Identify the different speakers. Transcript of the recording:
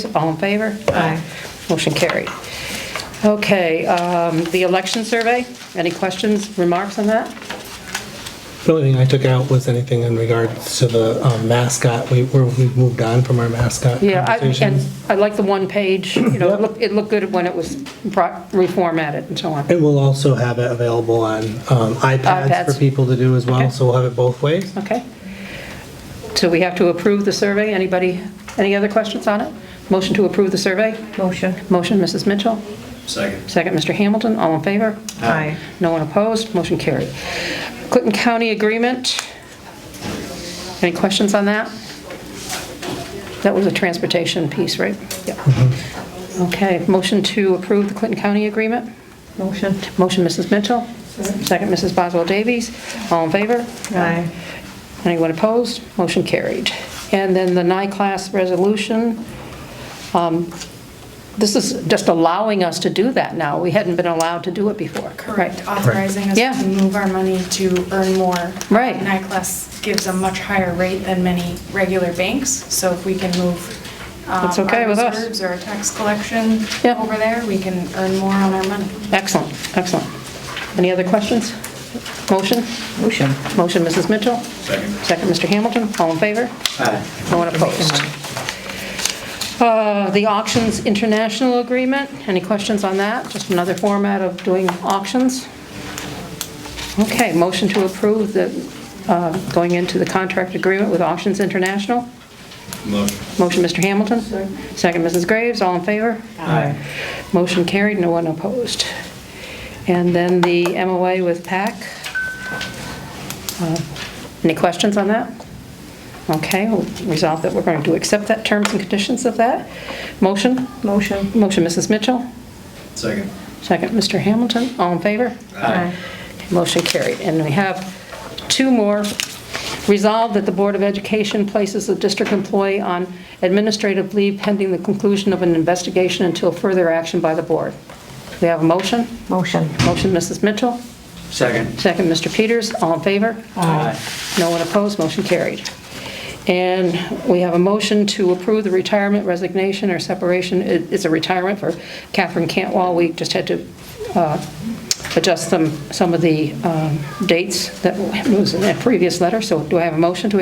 Speaker 1: All in favor?
Speaker 2: Aye.
Speaker 1: Motion carried. Okay, um, the election survey, any questions, remarks on that?
Speaker 3: The only thing I took out was anything in regards to the um, mascot. We, we're- we've moved on from our mascot
Speaker 1: Yeah, I- and
Speaker 3: conversation.
Speaker 1: I like the one page, you know, it looked, it looked good when it was brought- reformatted and so on.
Speaker 3: And we'll also have it available on um, iPads
Speaker 1: iPads.
Speaker 3: for people to do as
Speaker 1: Okay.
Speaker 3: well, so we'll have it both ways.
Speaker 1: Okay? So we have to approve the survey, anybody, any other questions on it? Motion to approve the survey?
Speaker 2: Motion.
Speaker 1: Motion, Mrs. Mitchell?
Speaker 4: Second.
Speaker 1: Second, Mr. Hamilton, all in favor?
Speaker 2: Aye.
Speaker 1: No one opposed, motion carried. Clinton County Agreement, any questions on that? That was a transportation piece, right? Yeah. Okay, motion to approve the Clinton County Agreement?
Speaker 2: Motion.
Speaker 1: Motion, Mrs. Mitchell? Second, Mrs. Boswell Davies, all in favor?
Speaker 2: Aye.
Speaker 1: Anyone opposed? Motion carried. And then the NICLAS resolution, um, this is just allowing us to do that now. We hadn't been allowed to do it before.
Speaker 5: Correct,
Speaker 1: Right.
Speaker 5: authorizing us
Speaker 1: Yeah.
Speaker 5: to move our money to earn more.
Speaker 1: Right.
Speaker 5: NICLAS gives a much higher rate than many regular banks, so if we can move um,
Speaker 1: That's okay
Speaker 5: our
Speaker 1: with us.
Speaker 5: reserves or our tax collection
Speaker 1: Yeah.
Speaker 5: over there, we can earn more on our money.
Speaker 1: Excellent, excellent. Any other questions? Motion?
Speaker 2: Motion.
Speaker 1: Motion, Mrs. Mitchell?
Speaker 4: Second.
Speaker 1: Second, Mr. Hamilton. All in favor?
Speaker 4: Aye.
Speaker 1: No one opposed. Uh, The auctions international agreement, any questions on that? Just another format of doing auctions? Okay, motion to approve the, uh, going into the contract agreement with Auctions International.
Speaker 4: Motion.
Speaker 1: Motion, Mr. Hamilton. Second, Mrs. Graves, all in favor?
Speaker 2: Aye.
Speaker 1: Motion carried, no one opposed. And then the MOA with PAC. Uh, Any questions on that? Okay, we'll resolve that we're going to accept that terms and conditions of that. Motion?
Speaker 2: Motion.
Speaker 1: Motion, Mrs. Mitchell.
Speaker 4: Second.
Speaker 1: Second, Mr. Hamilton. All in favor?
Speaker 2: Aye.
Speaker 1: Motion carried. And we have two more. Resolved that the Board of Education places a district employee on administrative leave pending the conclusion of an investigation until further action by the board. We have a motion.
Speaker 2: Motion.
Speaker 1: Motion, Mrs. Mitchell.
Speaker 4: Second.
Speaker 1: Second, Mr. Peters. All in favor?
Speaker 4: Aye.
Speaker 1: No one opposed, motion carried. And we have a motion to approve the retirement, resignation, or separation. It- It's a retirement for Catherine Cantwell. We just had to uh, adjust some, some of the um, dates that was in that previous letter. So do I have a motion to